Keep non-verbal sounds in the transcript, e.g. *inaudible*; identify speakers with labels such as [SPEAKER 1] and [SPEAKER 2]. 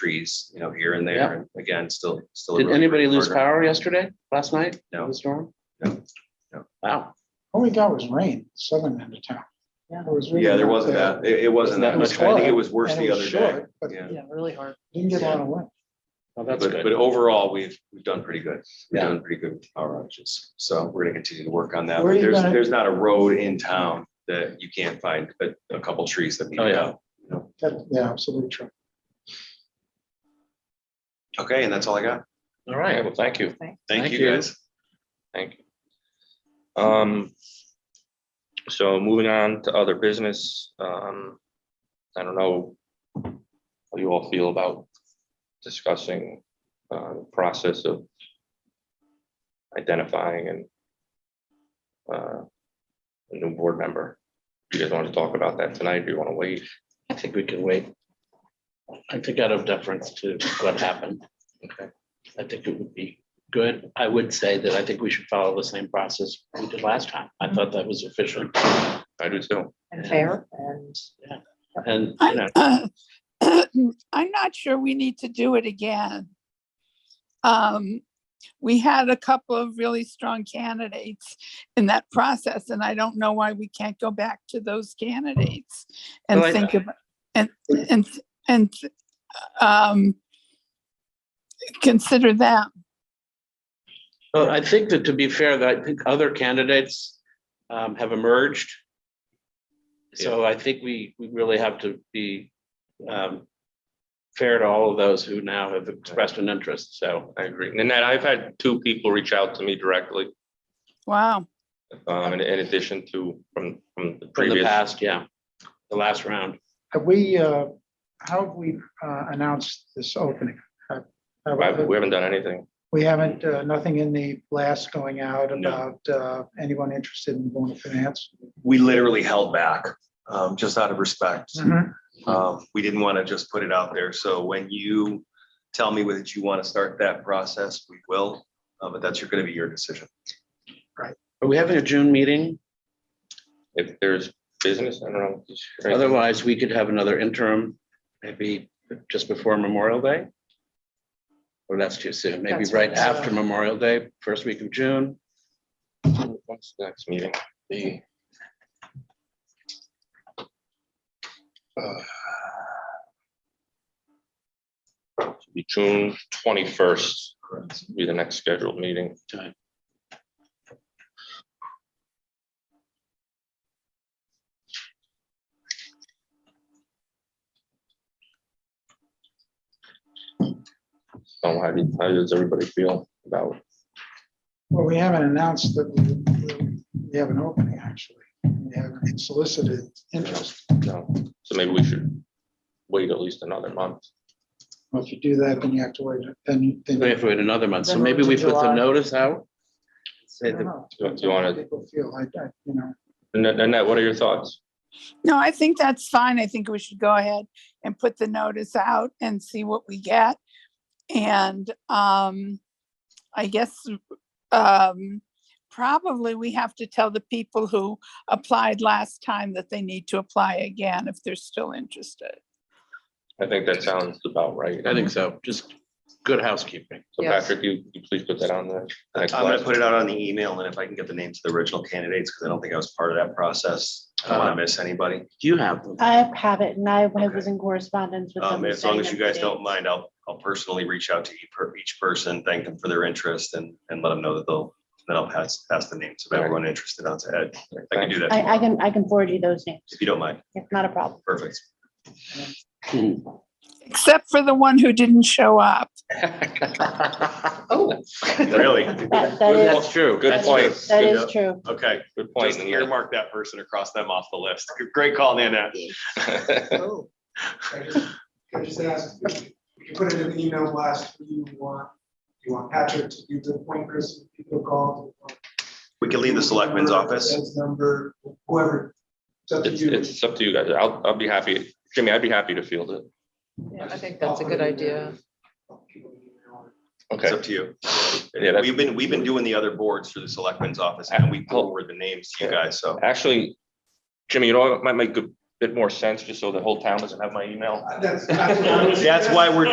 [SPEAKER 1] trees, you know, here and there, and again, still, still. a
[SPEAKER 2] Did
[SPEAKER 1] really
[SPEAKER 2] anybody
[SPEAKER 1] great
[SPEAKER 2] lose
[SPEAKER 1] partner.
[SPEAKER 2] power yesterday, last night?
[SPEAKER 1] No.
[SPEAKER 2] in The storm?
[SPEAKER 1] No. No.
[SPEAKER 2] Wow,
[SPEAKER 3] All we got was rain, southern end of town.
[SPEAKER 4] Yeah.
[SPEAKER 3] It was really
[SPEAKER 1] Yeah, there
[SPEAKER 3] not
[SPEAKER 1] wasn't
[SPEAKER 3] bad.
[SPEAKER 1] that, it, it wasn't that
[SPEAKER 2] It was
[SPEAKER 1] much, I think it
[SPEAKER 3] hard,
[SPEAKER 1] was worse
[SPEAKER 3] And it
[SPEAKER 1] the
[SPEAKER 3] was
[SPEAKER 1] other day,
[SPEAKER 3] short, But
[SPEAKER 1] yeah.
[SPEAKER 4] Yeah, really hard.
[SPEAKER 3] didn't get a lot of wind.
[SPEAKER 2] well,
[SPEAKER 1] But,
[SPEAKER 2] that's good.
[SPEAKER 1] but overall, we've, we've done pretty good. We've
[SPEAKER 2] Yeah.
[SPEAKER 1] done pretty good with power outages. So we're gonna continue to work on that.
[SPEAKER 3] Where
[SPEAKER 1] But
[SPEAKER 3] are you
[SPEAKER 1] There's,
[SPEAKER 3] gonna-
[SPEAKER 1] there's not a road in town that you can't find, but a couple trees that we
[SPEAKER 2] Oh, yeah.
[SPEAKER 1] know.
[SPEAKER 3] That- Yeah, absolutely true.
[SPEAKER 1] Okay, and that's all I got.
[SPEAKER 2] All right, well, thank you,
[SPEAKER 1] Thank
[SPEAKER 2] Thank
[SPEAKER 1] you
[SPEAKER 2] you.
[SPEAKER 1] guys.
[SPEAKER 5] Thank you. Um, so moving on to other business, um, I don't know how you all feel about discussing, uh, the process of identifying and uh, a new board member. You guys want to talk about that tonight? Do you want to wait?
[SPEAKER 2] I think we can wait. I think out of deference to what happened.
[SPEAKER 5] Okay.
[SPEAKER 2] I think it would be good. I would say that I think we should follow the same process we did last time. I thought that was efficient
[SPEAKER 5] I do too.
[SPEAKER 4] And fair and
[SPEAKER 2] and, you know,
[SPEAKER 6] I- *clears throat* I'm not sure we need to do it again. Um, We had a couple of really strong candidates in that process, and I don't know why we can't go back to those candidates and
[SPEAKER 5] Well, I-
[SPEAKER 6] think of, and, and, and um, consider that.
[SPEAKER 2] well, I think that to be fair, that I think other candidates um, have emerged. So I think we, we really have to be um, fair to all of those who now have expressed an interest, so.
[SPEAKER 5] I agree. Nanette, I've had two people reach out to me directly,
[SPEAKER 6] Wow.
[SPEAKER 5] um, in, in addition to from,
[SPEAKER 2] From
[SPEAKER 5] from the
[SPEAKER 2] the
[SPEAKER 5] previous.
[SPEAKER 2] past, yeah, the last round.
[SPEAKER 3] Have we, uh, how have we uh, announced this opening? Have- have-
[SPEAKER 5] I- We haven't done anything.
[SPEAKER 3] We haven't, uh, nothing in the blast going out
[SPEAKER 1] No.
[SPEAKER 3] about uh, anyone interested in going to finance?
[SPEAKER 1] We literally held back, um, just out of respect. Um, we didn't want to just put it out there. So when you tell me whether you want to start that process, we will. Uh, but that's going to be your decision.
[SPEAKER 2] Are we having a June meeting?
[SPEAKER 5] If there's business, I don't know. just-
[SPEAKER 2] Otherwise, we could have another interim, maybe just before Memorial Day. Or that's too soon, maybe
[SPEAKER 4] That's
[SPEAKER 2] right
[SPEAKER 4] right.
[SPEAKER 2] after Memorial Day, first week of June.
[SPEAKER 5] What's the next meeting? The. Uh, should Be June twenty-first, be the next scheduled meeting.
[SPEAKER 2] Time.
[SPEAKER 5] So how do you- how does everybody feel about?
[SPEAKER 3] Well, we haven't announced that we- we have an opening, actually. We haven't solicited interest.
[SPEAKER 5] No, so maybe we should wait at least another month.
[SPEAKER 3] Well, If you do that, then you have to wait, then,
[SPEAKER 2] We
[SPEAKER 3] then.
[SPEAKER 2] have to wait another month, so
[SPEAKER 4] Then
[SPEAKER 2] maybe we
[SPEAKER 4] to
[SPEAKER 2] put the
[SPEAKER 4] July.
[SPEAKER 2] notice out.
[SPEAKER 3] I
[SPEAKER 2] Say
[SPEAKER 3] don't
[SPEAKER 2] the-
[SPEAKER 3] know.
[SPEAKER 5] Do you want to,
[SPEAKER 3] People feel like, I- you
[SPEAKER 5] *laughs*
[SPEAKER 3] know.
[SPEAKER 5] Nanette, what are your thoughts?
[SPEAKER 6] No, I think that's fine. I think we should go ahead and put the notice out and see what we get. And um, I guess um, probably we have to tell the people who applied last time that they need to apply again if they're still interested.
[SPEAKER 5] I think that sounds about right.
[SPEAKER 2] I think so, just good housekeeping.
[SPEAKER 5] So
[SPEAKER 4] Yes.
[SPEAKER 5] Patrick, you, you please put that on the
[SPEAKER 1] I'm
[SPEAKER 5] next
[SPEAKER 1] going to
[SPEAKER 5] slide.
[SPEAKER 1] put it out on the email and if I can get the names of the original candidates, because I don't think I was part of that process. I don't want to miss anybody.
[SPEAKER 2] You have them.
[SPEAKER 7] I have it and I
[SPEAKER 1] Okay.
[SPEAKER 7] was in correspondence with them.
[SPEAKER 1] Um, as long as you
[SPEAKER 7] saying
[SPEAKER 1] guys
[SPEAKER 7] that
[SPEAKER 1] don't mind, I'll, I'll personally reach out to each per- each person, thank them for their interest and, and let them know that they'll, then I'll pass, pass the names of everyone interested on to Ed. I can do that
[SPEAKER 7] I, I
[SPEAKER 1] tomorrow,
[SPEAKER 7] can, I can forward you those names.
[SPEAKER 1] if you don't mind.
[SPEAKER 7] It's not a problem. *laughs*
[SPEAKER 1] Perfect.
[SPEAKER 6] Except for the one who didn't show up.
[SPEAKER 2] Oh.
[SPEAKER 7] *laughs*
[SPEAKER 1] Really?
[SPEAKER 7] That, that is,
[SPEAKER 2] That's true.
[SPEAKER 5] *laughs* Good
[SPEAKER 7] that's-
[SPEAKER 5] point.
[SPEAKER 7] that
[SPEAKER 1] Yeah.
[SPEAKER 7] is true.
[SPEAKER 1] Okay,
[SPEAKER 5] Good point.
[SPEAKER 1] just earmark that person across them off the list. Great call, Nana.
[SPEAKER 5] Nanette.
[SPEAKER 8] oh, I just, I just asked, you can put it in the email blast, who you want, you want Patrick to do the point person, people call.
[SPEAKER 1] We can leave the selectman's office.
[SPEAKER 8] Ed's number, whoever, it's up to
[SPEAKER 5] *laughs* It's,
[SPEAKER 8] you.
[SPEAKER 5] it's up to you guys. I'll, I'll be happy. Jimmy, I'd be happy to field it.
[SPEAKER 4] Yeah, I think that's a good idea.
[SPEAKER 1] It's up to you.
[SPEAKER 5] Yeah, that's-
[SPEAKER 1] We've been, we've been doing the other boards through the selectman's office and we forward the names to you guys, so.
[SPEAKER 5] Actually, Jimmy, you know, what might make a bit more sense just so the whole town doesn't have my email.
[SPEAKER 8] That's- that's what I was-
[SPEAKER 1] That's why we're